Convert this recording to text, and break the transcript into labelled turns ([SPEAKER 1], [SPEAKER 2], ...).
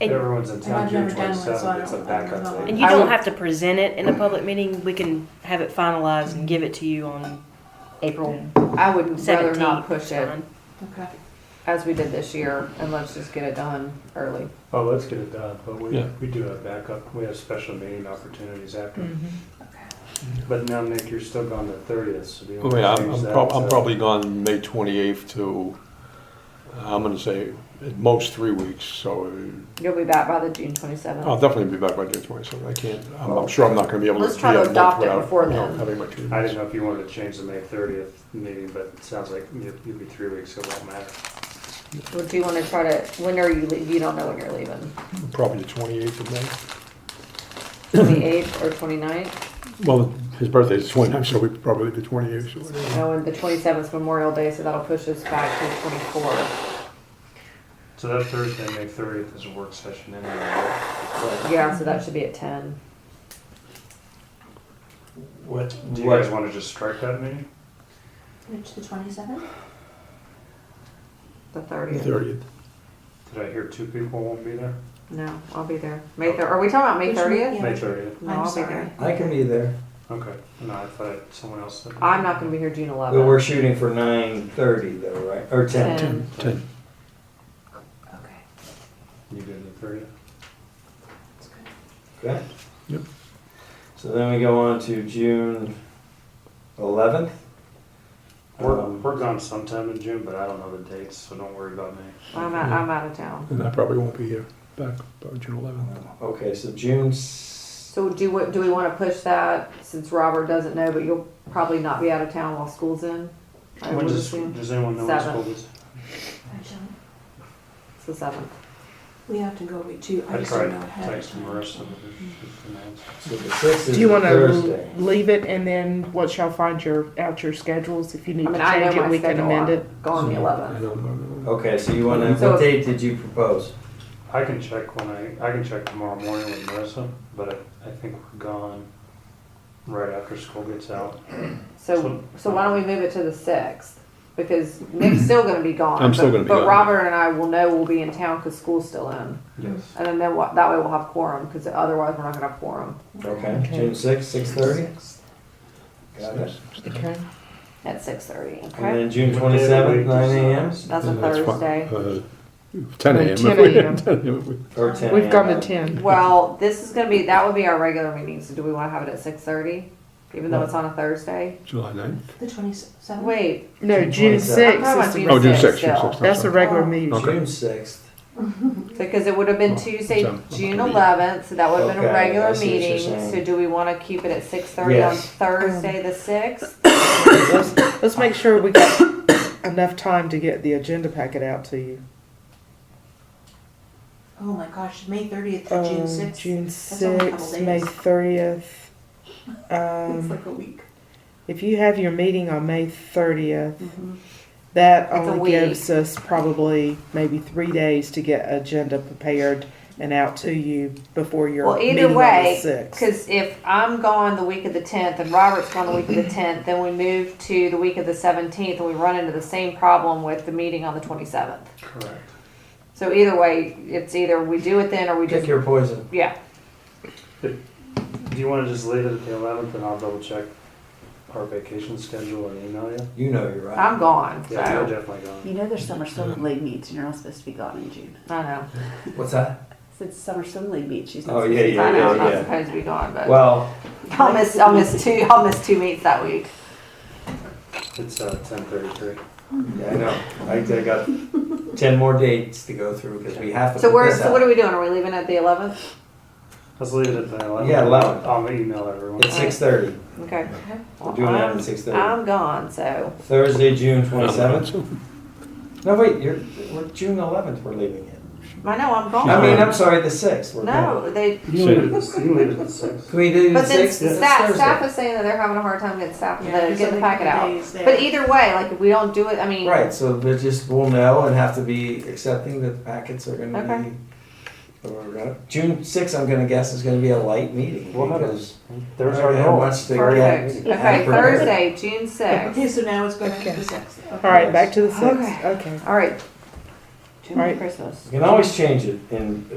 [SPEAKER 1] And-
[SPEAKER 2] Everyone's in
[SPEAKER 3] And
[SPEAKER 2] town
[SPEAKER 3] I've
[SPEAKER 2] June
[SPEAKER 3] never done one, so I
[SPEAKER 2] twenty-seventh, it's a
[SPEAKER 3] don't- I don't
[SPEAKER 2] backup
[SPEAKER 3] know.
[SPEAKER 2] thing.
[SPEAKER 1] And you
[SPEAKER 4] I
[SPEAKER 1] don't
[SPEAKER 4] would-
[SPEAKER 1] have to present it in a public meeting. We can have it finalized and give it to you on April
[SPEAKER 4] I would rather
[SPEAKER 1] seventeenth.
[SPEAKER 4] not push it
[SPEAKER 3] Okay.
[SPEAKER 4] as we did this year and let's just get it done early.
[SPEAKER 2] Oh, let's get it done, but we,
[SPEAKER 5] Yeah.
[SPEAKER 2] we do have backup, we have special meeting opportunities after.
[SPEAKER 3] Mm.
[SPEAKER 4] Mm-hmm.
[SPEAKER 2] But now, Nick, you're still gone the thirtieth, so do you
[SPEAKER 5] Oh,
[SPEAKER 2] want to
[SPEAKER 5] yeah, I'm,
[SPEAKER 2] change
[SPEAKER 5] I'm
[SPEAKER 2] that
[SPEAKER 5] prob- I'm
[SPEAKER 2] to-
[SPEAKER 5] probably gone May twenty-eighth to, I'm gonna say at most three weeks, so
[SPEAKER 4] You'll be back by the June twenty-seventh.
[SPEAKER 5] I'll definitely be back by June twenty-seventh. I can't, I'm, I'm sure I'm not gonna be able to.
[SPEAKER 4] Let's try to
[SPEAKER 5] be at work
[SPEAKER 4] adopt it
[SPEAKER 5] without,
[SPEAKER 4] before
[SPEAKER 5] you know,
[SPEAKER 4] then.
[SPEAKER 5] Having my two
[SPEAKER 2] I didn't
[SPEAKER 5] weeks.
[SPEAKER 2] know if you wanted to change the May thirtieth meeting, but it sounds like you- you'll be three weeks, so it won't matter.
[SPEAKER 4] Would you wanna try to, when are you, lea- you don't know when you're leaving,
[SPEAKER 5] Probably the twenty-eighth of May.
[SPEAKER 4] twenty-eighth or twenty-ninth?
[SPEAKER 5] Well, his birthday is twenty-nine, so we probably the twenty-eighth or whatever.
[SPEAKER 4] No, and the twenty-seventh Memorial Day, so that'll push us back to the twenty-fourth.
[SPEAKER 2] So that Thursday, May thirtieth is a work session anyway. right?
[SPEAKER 4] Yeah, so that should be at ten.
[SPEAKER 6] What,
[SPEAKER 2] Do you guys want to just strike that meeting?
[SPEAKER 3] Which, the twenty-seventh?
[SPEAKER 4] The
[SPEAKER 5] The
[SPEAKER 4] thirtieth.
[SPEAKER 5] thirtieth.
[SPEAKER 2] Did I hear two people won't be there?
[SPEAKER 4] No, I'll be there. May thir, are we talking about May
[SPEAKER 3] Which one?
[SPEAKER 4] thirtieth?
[SPEAKER 3] Yeah.
[SPEAKER 2] May thirtieth,
[SPEAKER 4] No,
[SPEAKER 3] I'm
[SPEAKER 4] I'll be
[SPEAKER 3] sorry.
[SPEAKER 4] there.
[SPEAKER 6] I can be there.
[SPEAKER 2] okay. No, I thought someone else said.
[SPEAKER 4] I'm not gonna be here June
[SPEAKER 6] But we're
[SPEAKER 4] eleventh.
[SPEAKER 6] shooting for nine thirty though, right? Or ten.
[SPEAKER 4] Ten.
[SPEAKER 5] Ten, ten.
[SPEAKER 3] Okay.
[SPEAKER 2] You did the thirtieth?
[SPEAKER 3] That's good.
[SPEAKER 6] Okay.
[SPEAKER 5] Yep.
[SPEAKER 6] So then we go on to June eleventh.
[SPEAKER 2] We're, we're gone sometime in June, but I don't know the dates, so don't worry about me.
[SPEAKER 4] I'm out, I'm out of town.
[SPEAKER 5] And I probably won't be here back by June eleventh.
[SPEAKER 6] Okay, so June. s-
[SPEAKER 4] So do we, do we wanna push that, since Robert doesn't know, but you'll probably not be out of town while school's in? I
[SPEAKER 2] When
[SPEAKER 4] would
[SPEAKER 2] does,
[SPEAKER 4] assume.
[SPEAKER 2] does anyone know when
[SPEAKER 4] Seven.
[SPEAKER 2] school is?
[SPEAKER 3] I don't,
[SPEAKER 4] It's the seventh.
[SPEAKER 3] we have to go with two, I
[SPEAKER 2] I
[SPEAKER 3] just don't
[SPEAKER 2] tried
[SPEAKER 3] know
[SPEAKER 2] to
[SPEAKER 3] ahead of
[SPEAKER 2] text
[SPEAKER 3] time.
[SPEAKER 2] Marissa, but she's pronounced.
[SPEAKER 6] So the sixth is
[SPEAKER 7] Do you
[SPEAKER 6] the
[SPEAKER 7] want to
[SPEAKER 6] Thursday.
[SPEAKER 7] leave it and then once y'all find your, out your schedules, if you
[SPEAKER 4] I
[SPEAKER 7] need to
[SPEAKER 4] mean, I know
[SPEAKER 7] change
[SPEAKER 4] my
[SPEAKER 7] it, we can
[SPEAKER 4] schedule.
[SPEAKER 7] amend it?
[SPEAKER 4] Go on the
[SPEAKER 5] I
[SPEAKER 4] eleventh.
[SPEAKER 5] don't know.
[SPEAKER 6] Okay, so you want to.
[SPEAKER 4] So-
[SPEAKER 6] what date did you propose?
[SPEAKER 2] I can check when I, I can check tomorrow morning with Marissa, but I, I think we're gone right after school gets out.
[SPEAKER 4] So, so why don't we move it to the sixth? Because Nick's still gonna be gone.
[SPEAKER 5] I'm still
[SPEAKER 4] but-
[SPEAKER 5] gonna be
[SPEAKER 4] But
[SPEAKER 5] gone.
[SPEAKER 4] Robert and I will know we'll be in town because school's still in.
[SPEAKER 2] Yes.
[SPEAKER 4] And then then what, that way we'll have quorum because otherwise we're not gonna have quorum
[SPEAKER 6] Okay, June sixth, six thirty. Got it.
[SPEAKER 5] Mhm.
[SPEAKER 7] Okay.
[SPEAKER 4] at six thirty,
[SPEAKER 6] And
[SPEAKER 4] okay?
[SPEAKER 6] then June twenty seventh, nine a.m.
[SPEAKER 4] That's a
[SPEAKER 5] And that's fine.
[SPEAKER 4] Thursday.
[SPEAKER 5] Uh, Ten
[SPEAKER 7] Uh,
[SPEAKER 5] AM.
[SPEAKER 7] 10 a.m..
[SPEAKER 5] 10 a.m.
[SPEAKER 6] or ten.
[SPEAKER 7] We've gone
[SPEAKER 6] a.m.
[SPEAKER 7] to ten.
[SPEAKER 4] Well, this is gonna be, that would be our regular meeting, so do we wanna have it at six thirty? Even though it's on a Thursday?
[SPEAKER 5] July ninth.
[SPEAKER 3] The twenty-seventh?
[SPEAKER 4] Wait,
[SPEAKER 7] No, June
[SPEAKER 4] I'm
[SPEAKER 7] sixth
[SPEAKER 4] talking
[SPEAKER 7] Oh. is
[SPEAKER 4] about
[SPEAKER 7] the,
[SPEAKER 4] June
[SPEAKER 5] Oh, June
[SPEAKER 4] sixth
[SPEAKER 5] sixth, June
[SPEAKER 4] still.
[SPEAKER 5] sixth. I'm
[SPEAKER 7] that's a
[SPEAKER 5] sorry.
[SPEAKER 7] regular meeting.
[SPEAKER 5] Okay.
[SPEAKER 6] June sixth.
[SPEAKER 4] Because it would have been
[SPEAKER 5] Oh,
[SPEAKER 4] Tuesday,
[SPEAKER 5] so-
[SPEAKER 4] June eleventh, so that would have been a
[SPEAKER 6] Okay, I
[SPEAKER 4] regular
[SPEAKER 6] see what you're
[SPEAKER 4] meeting,
[SPEAKER 6] saying.
[SPEAKER 4] so do we wanna keep it at six thirty on
[SPEAKER 6] Yes.
[SPEAKER 4] Thursday the sixth?
[SPEAKER 7] Let's, let's make sure we got enough time to get the agenda packet out to you.
[SPEAKER 3] Oh my gosh, May thirtieth to
[SPEAKER 4] Oh,
[SPEAKER 3] June
[SPEAKER 7] Um,
[SPEAKER 3] sixth.
[SPEAKER 7] June
[SPEAKER 3] That's only a couple
[SPEAKER 7] sixth, May
[SPEAKER 3] days.
[SPEAKER 7] thirtieth.
[SPEAKER 3] It's
[SPEAKER 7] Um,
[SPEAKER 3] like a week.
[SPEAKER 7] if you have your meeting on May thirtieth,
[SPEAKER 4] Mm-hmm.
[SPEAKER 7] That
[SPEAKER 4] It's a
[SPEAKER 7] only
[SPEAKER 4] week.
[SPEAKER 7] gives us probably maybe three days to get agenda prepared and out to you before your
[SPEAKER 4] Well,
[SPEAKER 7] meeting
[SPEAKER 4] either
[SPEAKER 7] on
[SPEAKER 4] way,
[SPEAKER 7] the sixth.
[SPEAKER 4] Because if I'm gone the week of the 10th and Robert's gone the week of the 10th, then we move to the week of the 17th and we run into the same problem with the meeting on the 27th.
[SPEAKER 2] Correct.
[SPEAKER 4] So either way, it's either we do it then or we
[SPEAKER 6] Pick
[SPEAKER 4] just,
[SPEAKER 6] your poison.
[SPEAKER 4] yeah.
[SPEAKER 2] Do you want to just leave it at the eleventh and I'll double check our vacation schedule and email you?
[SPEAKER 6] You know you're right.
[SPEAKER 4] I'm gone, so,
[SPEAKER 2] Yeah, you're
[SPEAKER 4] I
[SPEAKER 2] definitely gone.
[SPEAKER 8] You know there's summer swim league meets and you're not supposed to be gone in June.
[SPEAKER 4] know.
[SPEAKER 6] What's that?
[SPEAKER 8] Since summer swim league meets, she's not
[SPEAKER 6] Oh,
[SPEAKER 8] supposed
[SPEAKER 6] yeah,
[SPEAKER 8] to be
[SPEAKER 6] yeah,
[SPEAKER 4] I
[SPEAKER 8] gone
[SPEAKER 4] know
[SPEAKER 6] yeah,
[SPEAKER 4] I'm
[SPEAKER 8] out.
[SPEAKER 4] not
[SPEAKER 6] yeah.
[SPEAKER 4] supposed to be gone, but
[SPEAKER 6] Well,
[SPEAKER 4] I'll miss, I'll miss two, I'll miss two meets that week.
[SPEAKER 2] It's, uh, ten thirty-three.
[SPEAKER 6] yeah, I know. I I got ten more dates to go through because we have to.
[SPEAKER 4] So
[SPEAKER 6] put
[SPEAKER 4] we're,
[SPEAKER 6] this
[SPEAKER 4] so
[SPEAKER 6] out.
[SPEAKER 4] what are we doing? Are we leaving at the 11th?
[SPEAKER 2] Let's leave it at the eleventh.
[SPEAKER 6] Yeah, 11.
[SPEAKER 2] I'll email everyone.
[SPEAKER 6] It's six thirty.
[SPEAKER 4] Okay.
[SPEAKER 6] We're doing that
[SPEAKER 4] I'm-
[SPEAKER 6] at six thirty.
[SPEAKER 4] I'm gone, so.
[SPEAKER 6] Thursday, June twenty seventh.
[SPEAKER 5] So-
[SPEAKER 6] No, wait. You're we're June eleventh. We're leaving it.
[SPEAKER 4] I know, I'm gone.
[SPEAKER 6] I mean, I'm sorry. The sixth. We're going.
[SPEAKER 4] Oh. No, they,
[SPEAKER 2] You can leave it at- you can leave it at six.
[SPEAKER 6] Can we do the
[SPEAKER 4] But then
[SPEAKER 6] sixth? It's
[SPEAKER 4] staff,
[SPEAKER 6] Thursday.
[SPEAKER 4] staff is saying that they're having a hard time getting staff,
[SPEAKER 3] Yeah,
[SPEAKER 4] the,
[SPEAKER 3] there's
[SPEAKER 4] getting the
[SPEAKER 3] only
[SPEAKER 4] packet
[SPEAKER 3] couple
[SPEAKER 4] out.
[SPEAKER 3] days there.
[SPEAKER 4] But either way, like, if we don't do it, I mean,
[SPEAKER 6] Right. So we just will know and have to be accepting that the packets are going to
[SPEAKER 4] Okay.
[SPEAKER 6] be. We're gonna, June sixth. I'm going to guess is going to be a light meeting
[SPEAKER 2] We'll have
[SPEAKER 6] because.
[SPEAKER 2] it. There's
[SPEAKER 6] I
[SPEAKER 2] our
[SPEAKER 6] had
[SPEAKER 2] goal.
[SPEAKER 6] much to
[SPEAKER 2] Our
[SPEAKER 6] get.
[SPEAKER 2] meeting.
[SPEAKER 4] perfect. Okay,
[SPEAKER 6] Have it.
[SPEAKER 4] Thursday, June sixth.
[SPEAKER 3] Okay, so now it's going to
[SPEAKER 7] Okay.
[SPEAKER 3] the sixth. Okay.
[SPEAKER 7] All right, back to the sixth.
[SPEAKER 4] Okay.
[SPEAKER 7] Okay.
[SPEAKER 4] All right. June
[SPEAKER 7] All right.
[SPEAKER 4] Christmas.
[SPEAKER 6] You can always change it in